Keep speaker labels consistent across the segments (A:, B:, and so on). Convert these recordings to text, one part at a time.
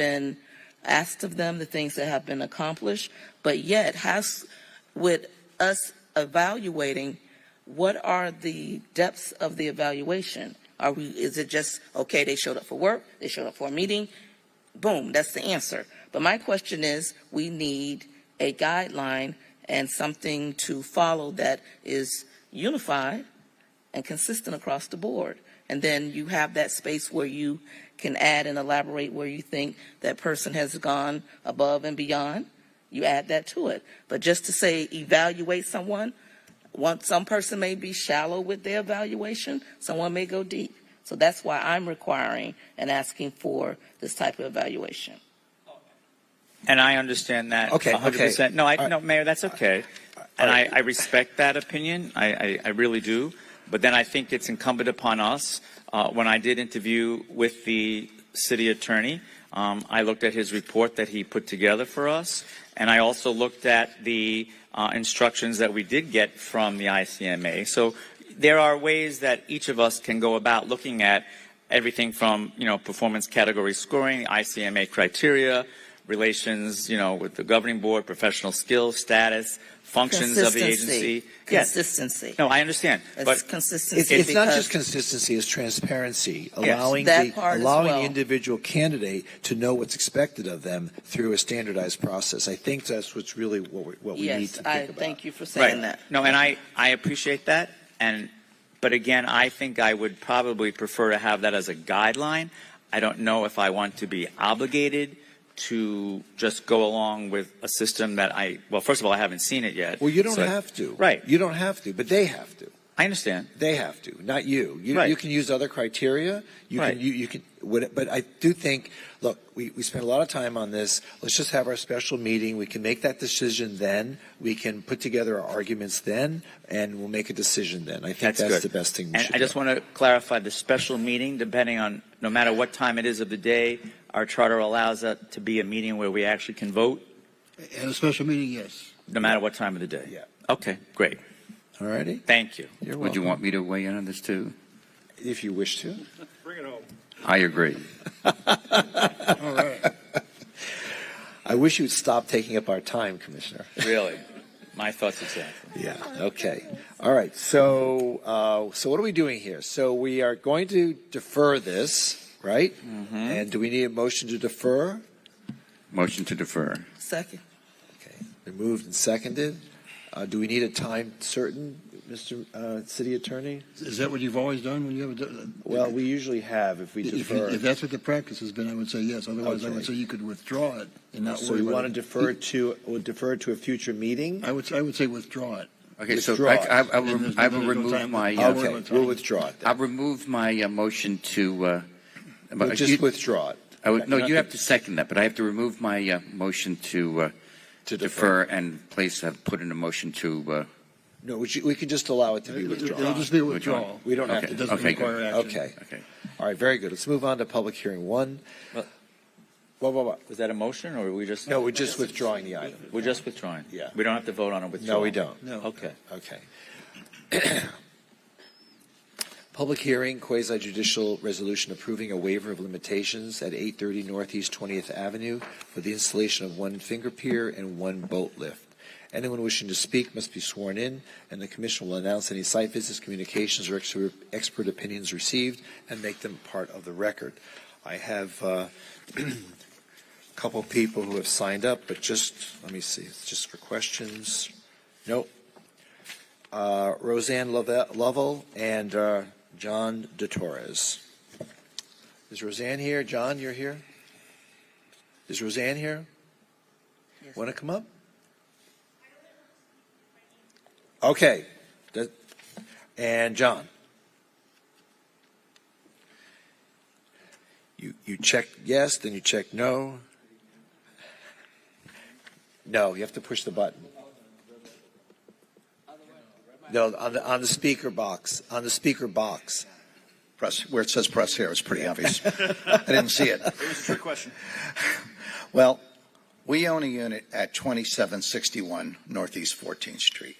A: been asked of them, the things that have been accomplished, but yet has, with us evaluating, what are the depths of the evaluation? Are we, is it just, okay, they showed up for work, they showed up for a meeting, boom, that's the answer. But my question is, we need a guideline and something to follow that is unified and consistent across the board. And then you have that space where you can add and elaborate where you think that person has gone above and beyond. You add that to it. But just to say evaluate someone, one, some person may be shallow with their evaluation, someone may go deep. So that's why I'm requiring and asking for this type of evaluation.
B: And I understand that.
C: Okay,
B: 100%. No, I,
C: okay.
B: no, Mayor, that's okay. And I,
C: right.
B: I respect that opinion. I, I, I really do. But then I think it's incumbent upon us. Uh, when I did interview with the city attorney, um, I looked at his report that he put together for us. And I also looked at the uh, instructions that we did get from the ICMA. So there are ways that each of us can go about looking at everything from, you know, performance category scoring, ICMA criteria, relations, you know, with the governing board, professional skills, status, functions of the
A: Consistency.
B: agency. Yes,
A: Consistency.
B: no, I understand, but
A: It's consistency
C: It's, it's not just
A: because-
C: consistency, it's transparency, allowing,
A: That
C: the,
A: part as
C: allowing
A: well.
C: the individual candidate to know what's expected of them through a standardized process. I think that's what's really what we, what we need
A: Yes,
C: to think
A: I
C: about.
A: thank you for saying
B: right.
A: that.
B: No, and I, I appreciate that. And, but again, I think I would probably prefer to have that as a guideline. I don't know if I want to be obligated to just go along with a system that I, well, first of all, I haven't seen it yet.
C: Well, you don't
B: so-
C: have to.
B: Right.
C: You don't have to, but they have to.
B: I understand.
C: They have to, not you. You,
B: Right.
C: you can use other criteria. You
B: Right.
C: can you, you can. What, but I do think. Look, we, we spent a lot of time on this. Let's just have our special meeting. We can make that decision then. We can put together our arguments then, and we'll make a decision then. I think
B: That's
C: that's,
B: good.
C: the best thing. We
B: And
C: should
B: I just
C: do.
B: want to clarify the special meeting, depending on, no matter what time it is of the day, our charter allows that to be a meeting where we actually can vote,
D: At a special meeting, yes.
B: no matter what time of the day.
C: Yeah.
B: Okay, great.
C: All righty.
B: Thank you.
C: You're
D: Would you
C: welcome.
D: want me to weigh in on this too?
C: if you wish to.
D: I agree.
C: All right. I wish you'd stop taking up our time, Commissioner.
B: Really? My thoughts exactly.
C: Yeah. Okay. All right. So, uh, so what are we doing here? So we are going to defer this, right? And do we need a motion to defer?
D: Motion to defer.
A: Second,
C: Okay. Been moved and seconded. Uh, do we need a time certain, Mr. Uh, City Attorney?
E: Is that what you've always done when you have a?
C: Well, we usually have if we
E: If,
C: defer.
E: if that's what the practice has been, I would say yes. Otherwise, I would
C: Okay.
E: say you could withdraw it and not
C: so
E: worry
C: Uh, we
E: about
C: want to
E: it.
C: defer to or defer to a future meeting.
E: I would, I would say withdraw it.
D: Okay, so
C: Withdraw.
D: I, I, I
E: And
D: will,
E: there's no-
D: I will
E: there's no
D: remove
E: time.
D: my,
E: Yeah.
D: uh,
E: Okay.
C: okay. We'll withdraw it.
D: I'll
C: Then.
D: remove my uh, motion to, uh,
C: We'll
D: you-
C: just withdraw it
D: I would, no, you have to second that, but I have to remove my, uh, motion to, uh,
C: to
D: defer and place, uh, put in a motion to, uh,
C: No, we, should, we can just allow it to be
E: It'll
C: withdrawn.
E: just be a
D: Withdraw.
E: withdrawal.
C: We don't have
E: It
C: to.
E: doesn't
D: Okay, good.
E: require action.
C: Okay.
D: okay.
C: All right. Very good. Let's move on to public hearing one.
B: Well-
C: Whoa, whoa, whoa.
B: Was that a motion, or were we just?
C: No, we're just withdrawing the item.
B: We're just withdrawing?
C: Yeah.
B: We don't have to vote on a withdrawal?
C: No, we don't.
E: No.
B: Okay.
C: Okay. Public hearing, quasi judicial resolution approving a waiver of limitations at 830 Northeast 20th Avenue for the installation of one finger pier and one boat lift. Anyone wishing to speak must be sworn in, and the commission will announce any site visits, communications, or ex- expert opinions received and make them part of the record. I have uh, a couple people who have signed up, but just, let me see, it's just for questions. Nope. Uh, Roseanne Love- Lovell and uh, John DeTorres. Is Roseanne here? John, you're here? Is Roseanne here? Want to come up? Okay. That- And John? You, you checked yes, then you checked no. No, you have to push the button. No, on the, on the speaker box, on the speaker box.
F: press where it says press here it's pretty obvious i didn't see it
G: It was a trick question.
F: well we own a unit at 2761 northeast 14th street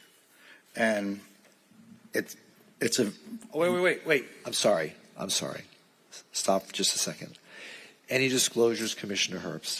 F: and it's it's a
B: Oh, Wait, wait, wait, wait.
C: I'm sorry. I'm sorry. Stop for just a second. Any disclosures, Commissioner Herbst?